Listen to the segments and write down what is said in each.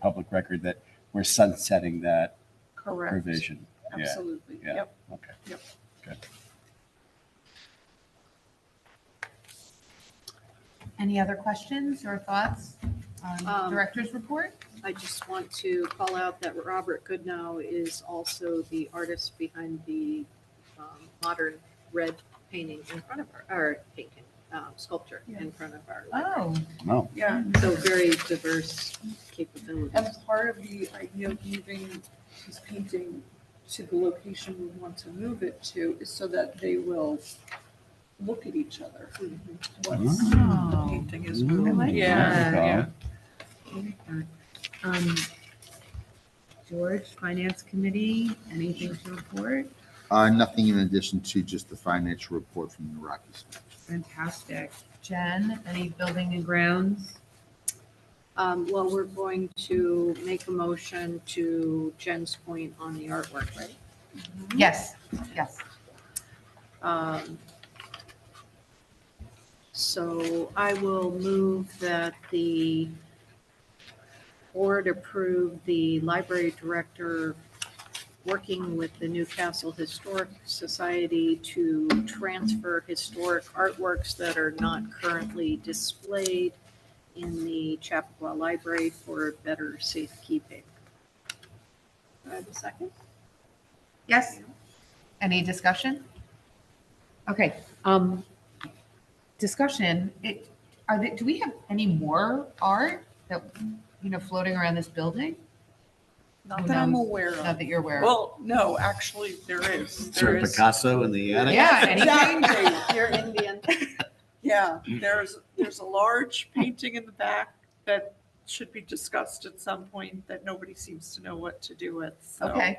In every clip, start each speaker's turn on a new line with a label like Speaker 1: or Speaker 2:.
Speaker 1: public record that we're sunsetting that
Speaker 2: Correct.
Speaker 1: provision. Yeah,
Speaker 2: Absolutely.
Speaker 1: yeah.
Speaker 2: Yep.
Speaker 1: okay.
Speaker 2: Yep.
Speaker 1: Good.
Speaker 3: Any other questions or thoughts on
Speaker 2: Um,
Speaker 3: director's report?
Speaker 2: I just want to call out that Robert Goodnow is also the artist behind the um, modern red painting in front of our, or painting, um, sculpture in front of our. library.
Speaker 3: Oh,
Speaker 1: No,
Speaker 4: Yeah,
Speaker 2: So very diverse capabilities.
Speaker 4: and part of the idea of moving this painting to the location we want to move it to is so that they will look at each other once
Speaker 1: Mm-hmm.
Speaker 4: the
Speaker 3: oh.
Speaker 4: painting is
Speaker 1: Ooh,
Speaker 3: I
Speaker 4: moved.
Speaker 1: there
Speaker 3: like
Speaker 1: we
Speaker 3: that.
Speaker 1: go.
Speaker 3: Um, George, Finance Committee, anything to report?
Speaker 5: Uh, nothing in addition to just the financial report from the Rockies.
Speaker 3: Fantastic. Jen, any building and grounds?
Speaker 2: Um, Well, we're going to make a motion to Jen's point on the artwork, right?
Speaker 3: Yes, yes.
Speaker 2: Um, So I will move that the board approve the library director working with the Newcastle Historic Society to transfer historic artworks that are not currently displayed in the Chappaqua Library for better safekeeping. Do I have a second?
Speaker 3: Yes? Any discussion? Okay, um, discussion, it, are there, do we have any more art that, you know, floating around this building?
Speaker 4: Not that I'm
Speaker 3: Who knows?
Speaker 4: aware
Speaker 3: Not
Speaker 4: of.
Speaker 3: that you're aware of.
Speaker 4: Well, no, actually, there is, there
Speaker 1: Sir
Speaker 4: is.
Speaker 1: Picasso in the attic?
Speaker 3: Yeah, anything?
Speaker 4: Exactly.
Speaker 2: You're Indian.
Speaker 4: Yeah, there's, there's a large painting in the back that should be discussed at some point that nobody seems to know what to do with, so.
Speaker 3: Okay,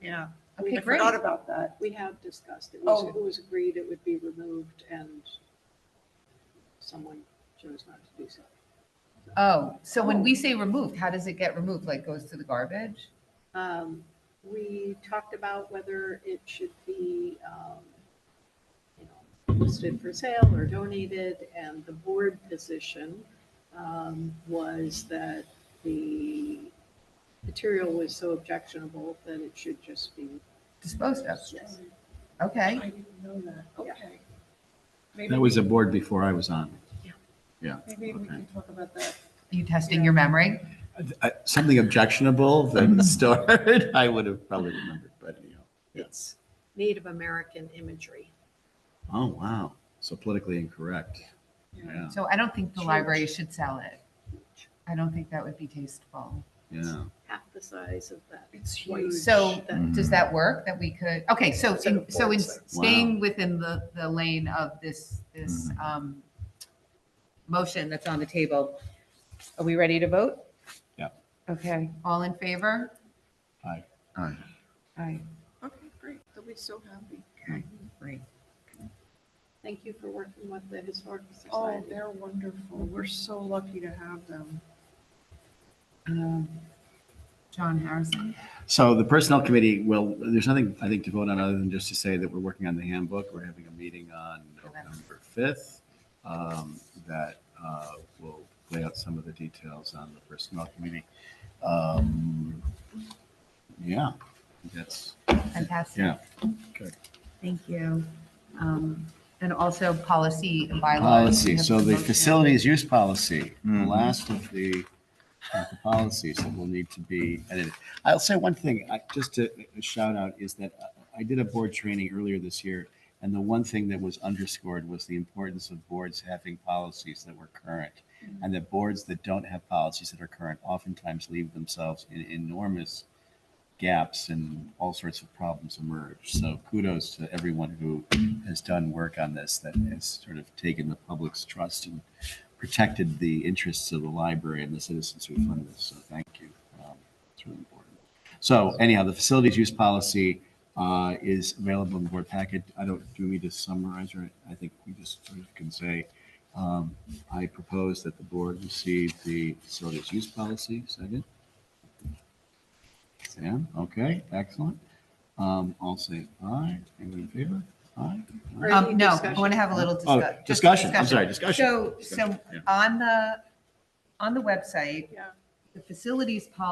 Speaker 4: Yeah,
Speaker 3: okay,
Speaker 4: I
Speaker 3: great.
Speaker 4: forgot about that.
Speaker 2: We have discussed, it was,
Speaker 4: Oh.
Speaker 2: it was agreed it would be removed and someone chose not to do so.
Speaker 3: Oh, so when we say removed, how does it get removed? Like goes to the garbage?
Speaker 2: Um, We talked about whether it should be, um, you know, listed for sale or donated, and the board position um, was that the material was so objectionable that it should just be,
Speaker 3: Disposed of?
Speaker 2: yes.
Speaker 4: I
Speaker 3: Okay,
Speaker 4: didn't know that, okay. Maybe
Speaker 6: That was a board before I was on.
Speaker 4: Maybe we can talk about that.
Speaker 3: are you testing your memory?
Speaker 6: Uh, Something objectionable that was stored, I would have probably remembered, but you know.
Speaker 2: It's Native American imagery.
Speaker 6: Oh, wow. So politically incorrect. Yeah,
Speaker 3: So I don't think the
Speaker 2: Sure.
Speaker 3: library should sell it. I don't think that would be tasteful.
Speaker 6: yeah.
Speaker 2: half the size of that.
Speaker 4: It's
Speaker 2: white
Speaker 4: huge.
Speaker 3: So
Speaker 2: that-
Speaker 6: Mm-hmm.
Speaker 3: does that work that we could, okay, so,
Speaker 2: Instead
Speaker 3: in-
Speaker 2: of
Speaker 3: so in
Speaker 2: boards,
Speaker 3: staying within the, the lane of this, this,
Speaker 6: Mm-hmm.
Speaker 3: um, motion that's on the table, are we ready to vote?
Speaker 6: Yeah.
Speaker 3: Okay, all in favor?
Speaker 5: All right.
Speaker 3: Aye.
Speaker 4: Okay, great, they'll be so happy.
Speaker 3: Great.
Speaker 2: Thank you for working with the Historical
Speaker 4: Oh,
Speaker 2: Society.
Speaker 4: they're wonderful, we're so lucky to have them.
Speaker 3: Um, John Harrison?
Speaker 6: So the personnel committee will, there's nothing, I think, to vote on other than just to say that we're working on the handbook. We're having a meeting on November 5th um, that uh, will lay out some of the details on the personnel committee. Um, Yeah, that's,
Speaker 3: Fantastic.
Speaker 6: Yeah.
Speaker 3: Good. Thank you. Um, And also policy and bylaws. We
Speaker 6: Policy,
Speaker 3: have
Speaker 6: Uh, so the
Speaker 3: motion.
Speaker 6: facilities use policy, the
Speaker 5: Mhm.
Speaker 6: last of the of the policies that will need to be edited. I'll say one thing, I- just a a shout out, is that uh, I did a board training earlier this year, and the one thing that was underscored was the importance of boards having policies that were current. And that boards that don't have policies that are current oftentimes leave themselves in enormous gaps and all sorts of problems emerge. So kudos to everyone who has done work on this that has sort of taken the public's trust and protected the interests of the library and the citizens who fund this. So thank you. Um, It's really important. So anyhow, the facilities use policy uh, is available in the board packet. I don't, do we need to summarize or I think we just sort of can say, um, I propose that the board receive the facilities use policy. Second? Sam, okay, excellent. Um, I'll say aye. Anyone in favor? Aye.
Speaker 2: Or
Speaker 3: Um,
Speaker 2: any
Speaker 3: No, I
Speaker 2: discussion?
Speaker 3: want to have a little
Speaker 6: Oh,
Speaker 3: discuss- just
Speaker 6: discussion, I'm sorry, discussion.
Speaker 3: So, so
Speaker 6: Yeah.
Speaker 3: on the, on the website,
Speaker 4: Yeah.
Speaker 3: the facilities policy